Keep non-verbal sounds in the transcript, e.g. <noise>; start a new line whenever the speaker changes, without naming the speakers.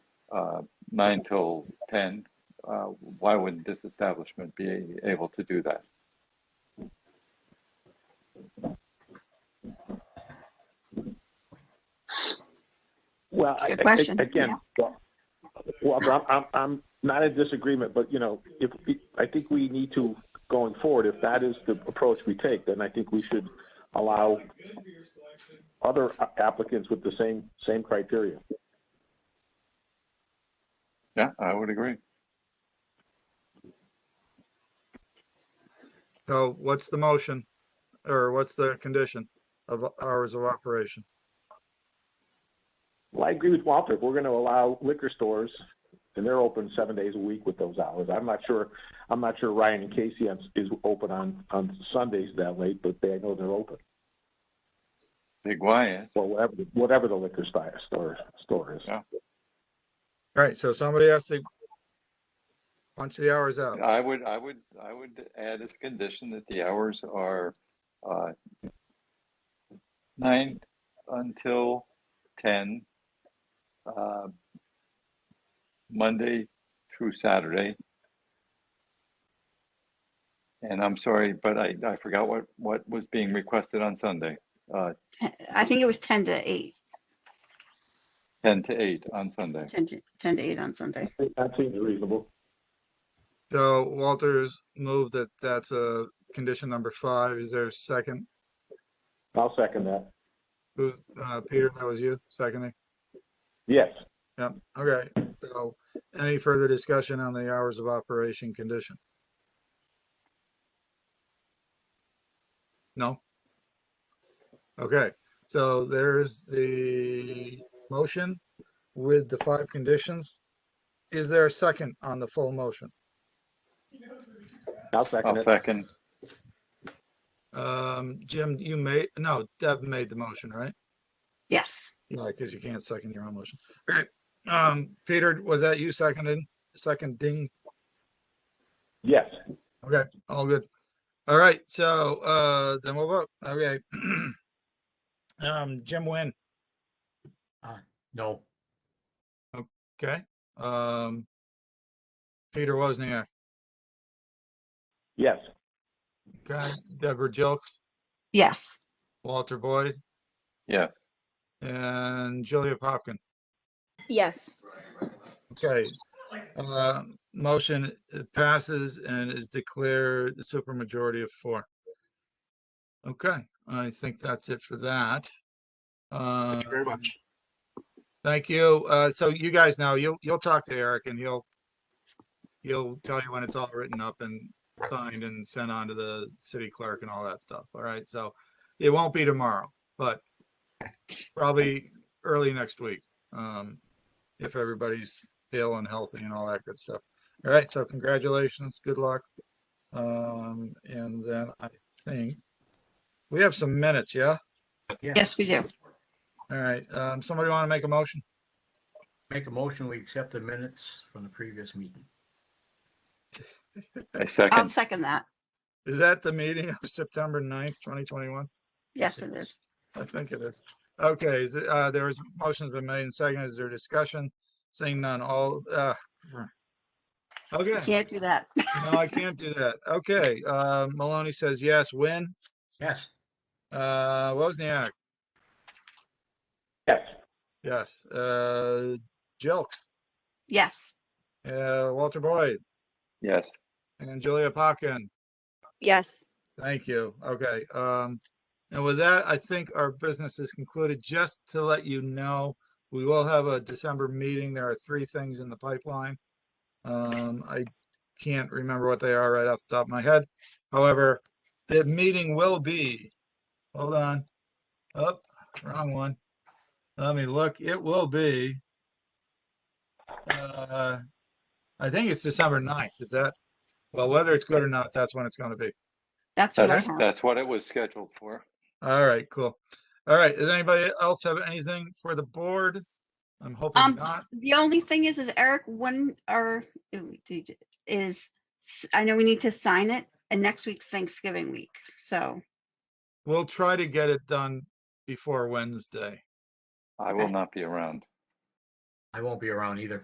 uh, nine till ten, uh, why wouldn't this establishment be able to do that?
Well, I-
Good
I-
question.
Again, well, I'm, I'm, I'm not in disagreement, but you know, if, I think we need to, going forward, if that is the approach we take, then I think we should allow other applicants with the same, same criteria.
Yeah, I would agree.
So what's the motion? Or what's the condition of hours of operation?
Well, I agree with Walter. If we're going to allow liquor stores, and they're open seven days a week with those hours. I'm not sure. I'm not sure Ryan and Casey is is open on on Sundays that late, but they I know they're open.
Big Y is,
Well, whatever the, whatever the liquor store store, store is.
Yeah.
All right, so somebody has to punch the hours out.
I would, I would, I would add as a condition that the hours are, uh, nine until ten, uh, Monday through Saturday. And I'm sorry, but I, I forgot what, what was being requested on Sunday, uh,
Ten- I think it was 10 to 8,
ten to eight on Sunday.
10 to, 10 to 8 on Sunday.
That seems reasonable.
So Walter's moved that that's a condition number five. Is there a second?
I'll second that.
Who's, uh, Peter, that was you seconding?
Yes.
Yep, okay. So any further discussion on the hours of operation condition? No? Okay, so there's the motion with the five conditions. Is there a second on the full motion?
I'll
I'll
second it.
second.
Um, Jim, you made, no, Deb made the motion, right?
Yes.
No, because you can't second your own motion. Okay, um, Peter, was that you seconded, seconding?
Yes.
Okay, all good. All right, so, uh, then we'll vote. Okay. <clears throat> Um, Jim Nguyen,
No,
okay, um, Peter Wozniak,
Yes.
okay, Deborah Jilks,
Yes.
Walter Boyd,
Yeah,
and Julia Popkin.
Yes.
Okay, uh, motion uh, passes and is declared the supermajority of four. Okay, I think that's it for that. Uh,
thank you very much.
thank you. Uh, so you guys know, you'll, you'll talk to Eric and he'll, he'll tell you when it's all written up and signed and sent on to the city clerk and all that stuff. All right, so it won't be tomorrow, but probably early next week. Um, if everybody's ill and healthy and all that good stuff. All right, so congratulations, good luck. Um, and then I think we have some minutes, yeah?
Yeah,
Yes, we do.
All right, um, somebody want to make a motion?
make a motion, we accept the minutes from the previous meeting.
I
I'll
second.
second that.
Is that the meeting of September 9th, twenty twenty-one?
Yes, it is.
I think it is. Okay, is, it- uh, there was, motion's been made and seconded. Is there discussion? Seeing none, all, uh. Okay,
Can't do that.
no,
<laughs>
I can't do that. Okay, uh, Maloney says yes, Win.
Yes,
uh, Wozniak,
Yes.
yes, uh, Jelks.
Yes.
Uh, Walter Boyd
Yes,
and Julia Popkin.
Yes.
Thank you. Okay. Um, and with that, I think our business is concluded. Just to let you know, we will have a December meeting. There are three things in the pipeline. Um, I can't remember what they are right off the top of my head. However, the meeting will be, hold on. Oh, wrong one. Let me look. It will be. Uh, I think it's December 9th. Is that? Well, whether it's good or not, that's when it's going to be.
That's what I
that's,
have.
that's what it was scheduled for.
All right, cool. All right, does anybody else have anything for the board? I'm hoping
Um,
not.
The only thing is, is Eric, when are, is, I know we need to sign it and next week's Thanksgiving week. So,
We'll try to get it done before Wednesday.
I will
Okay.
not be around.
I won't be around either.